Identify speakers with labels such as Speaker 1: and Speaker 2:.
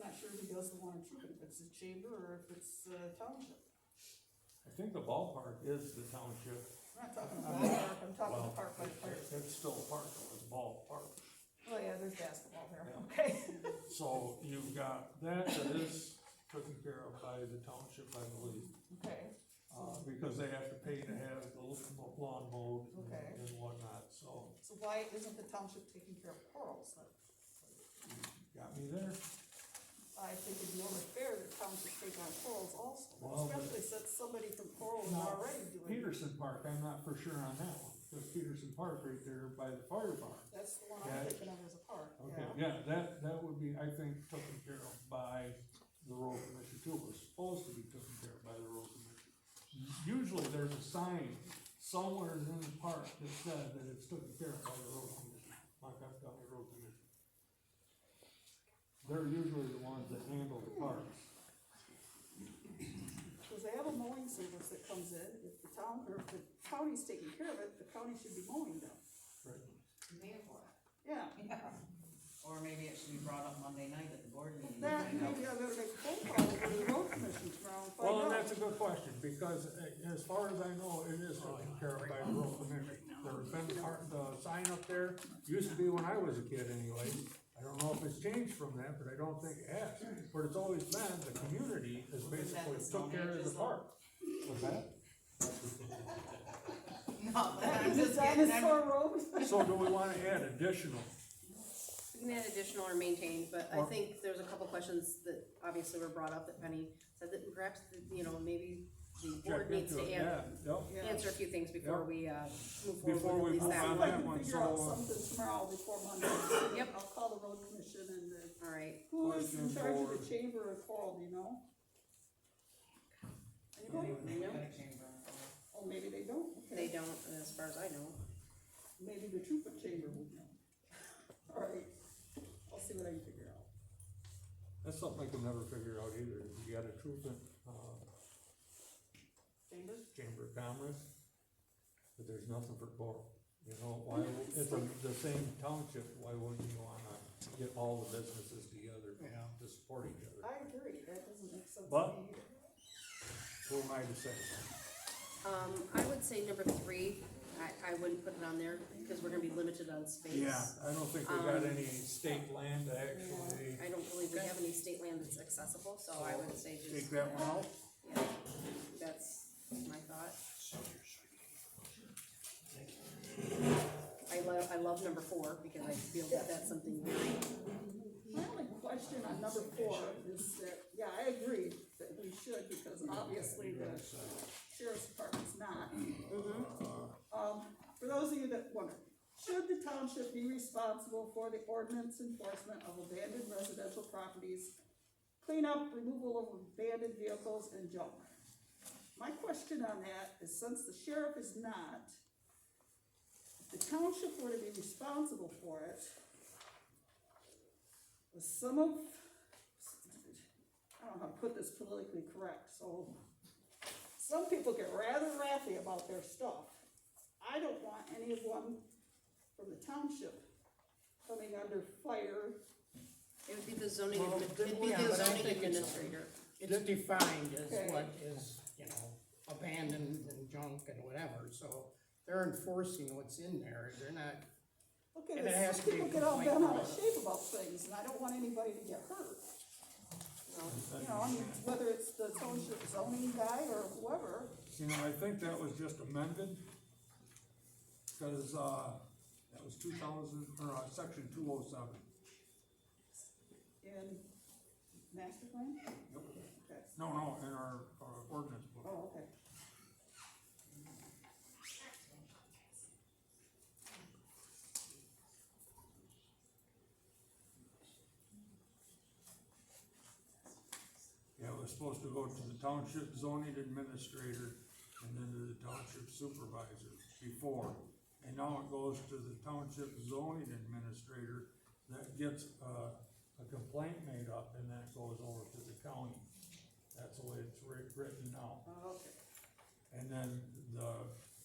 Speaker 1: doesn't wanna choose, if it's the chamber or if it's the township.
Speaker 2: I think the ballpark is the township,
Speaker 1: I'm not talking about park, I'm talking
Speaker 2: Well,
Speaker 1: park by park.
Speaker 2: it's still a park, it was ballpark.
Speaker 1: Oh yeah, there's basketball there, okay.
Speaker 2: So you've got that that is taken care of by the township, I believe,
Speaker 1: Okay,
Speaker 2: uh, because they have to pay to have the little lawn mowed
Speaker 1: Okay.
Speaker 2: and- and whatnot, so
Speaker 1: so why isn't the township taking care of corals then?
Speaker 2: got me there.
Speaker 1: I think it'd be only fair that township take on corals also,
Speaker 2: Well, but-
Speaker 1: especially since somebody from coral is
Speaker 2: No.
Speaker 1: Oh, already doing it.
Speaker 2: Peterson Park, I'm not for sure on that one, because Peterson Park right there by the fire barn.
Speaker 1: That's the one
Speaker 2: Yeah.
Speaker 1: I'm thinking of as a park,
Speaker 2: Okay,
Speaker 1: yeah.
Speaker 2: yeah, that, that would be, I think, taken care of by the road commission too, was supposed to be taken care of by the road commission. Usually there's a sign somewhere in the park that said that it's taken care of by the road commission, Blackhawk County Road Commission. They're usually the ones that handle the parks.
Speaker 1: Cause they have a mowing service that comes in, if the town, or if the county's taking care of it, the county should be mowing them,
Speaker 3: Therefore,
Speaker 1: yeah.
Speaker 3: Or maybe it should be brought up Monday night at the board meeting.
Speaker 1: That, maybe I better make a phone call to the road commission tomorrow and
Speaker 2: Well, and
Speaker 1: find out.
Speaker 2: that's a good question, because uh, as far as I know, it is taken care of by the road commission. There's been part, the sign up there, used to be when I was a kid anyway. I don't know if it's changed from that, but I don't think it has. But it's always been, the community has basically took care of the park. What's that?
Speaker 3: No, but I'm
Speaker 1: The
Speaker 3: just getting, I'm-
Speaker 1: dinosaur road,
Speaker 2: So do we wanna add additional?
Speaker 4: We can add additional or maintain, but I
Speaker 2: Or-
Speaker 4: think there's a couple questions that obviously were brought up that Penny said that perhaps, you know, maybe the board
Speaker 2: Check
Speaker 4: needs
Speaker 2: into
Speaker 4: to
Speaker 2: it,
Speaker 4: an-
Speaker 2: yeah, yep.
Speaker 1: Yeah.
Speaker 4: answer a few things before
Speaker 2: Yep.
Speaker 4: we, uh, move
Speaker 2: Before
Speaker 4: forward
Speaker 2: we move
Speaker 4: with at least that
Speaker 2: on
Speaker 1: I
Speaker 4: one.
Speaker 2: that
Speaker 1: can
Speaker 2: one,
Speaker 1: figure out
Speaker 2: so, uh,
Speaker 1: something tomorrow before Monday.
Speaker 4: Yep.
Speaker 1: I'll call the road commission and the,
Speaker 4: All right,
Speaker 1: who is in
Speaker 2: Question
Speaker 1: charge of
Speaker 2: for-
Speaker 1: the chamber of coral, do you know? Anybody?
Speaker 3: They got a chamber.
Speaker 1: Oh, maybe they don't,
Speaker 4: they
Speaker 1: okay,
Speaker 4: don't, as far as I know.
Speaker 1: maybe the trooper chamber would know. Alright, I'll see what I can figure out.
Speaker 2: That's something I can never figure out either. You got a truth in, uh,
Speaker 1: Chamber?
Speaker 2: Chamber of Commerce, but there's nothing for coral. You know, why, it's a- the same township, why wouldn't you wanna get all the businesses together to support each other?
Speaker 1: I agree, that doesn't make sense to
Speaker 2: But-
Speaker 1: me either.
Speaker 2: Who am I to say?
Speaker 4: Um, I would say number three, I, I wouldn't put it on there because we're gonna be limited on space.
Speaker 2: I don't think we got any state land to actually
Speaker 4: I don't believe we have any state land that's accessible, so I would say
Speaker 2: take
Speaker 4: just,
Speaker 2: that one out.
Speaker 4: yeah, that's my thought. I love, I love number four because I feel that that's something very
Speaker 1: My only question on number four is that, yeah, I agree that we should, because obviously the sheriff's department's not. Um, for those of you that wonder, should the township be responsible for the ordinance enforcement of abandoned residential properties, cleanup, removal of abandoned vehicles and junk? My question on that is since the sheriff is not, if the township were to be responsible for it, some of, I don't know how to put this politically correct, so some people get rather wrathy about their stuff. I don't want anyone from the township coming under fire.
Speaker 4: It would be the zoning,
Speaker 5: Well,
Speaker 4: admi- it'd be
Speaker 5: yeah,
Speaker 4: the
Speaker 5: but I
Speaker 4: zoning
Speaker 5: think it's-
Speaker 4: administrator.
Speaker 5: It's defined
Speaker 1: Okay.
Speaker 5: as what is, you know, abandoned and junk and whatever, so they're enforcing what's in there, they're not,
Speaker 1: Okay,
Speaker 5: And it has
Speaker 1: but
Speaker 5: to
Speaker 1: some
Speaker 5: be
Speaker 1: people get all
Speaker 5: complaint
Speaker 1: bent out of
Speaker 5: about it.
Speaker 1: shape about things, and I don't want anybody to get hurt. You know, I mean, whether it's the township zoning guy or whoever,
Speaker 2: You know, I think that was just amended, cause, uh, that was two thousand, or, uh, section two oh seven.
Speaker 1: in master plan? Okay,
Speaker 2: No, no, in our, our ordinance book.
Speaker 1: oh, okay.
Speaker 2: Yeah, it was supposed to go to the township zoning administrator and then to the township supervisor before. And now it goes to the township zoning administrator that gets, uh, a complaint made up and that goes over to the county. That's the way it's writ- written now.
Speaker 1: Oh, Okay.
Speaker 2: And then the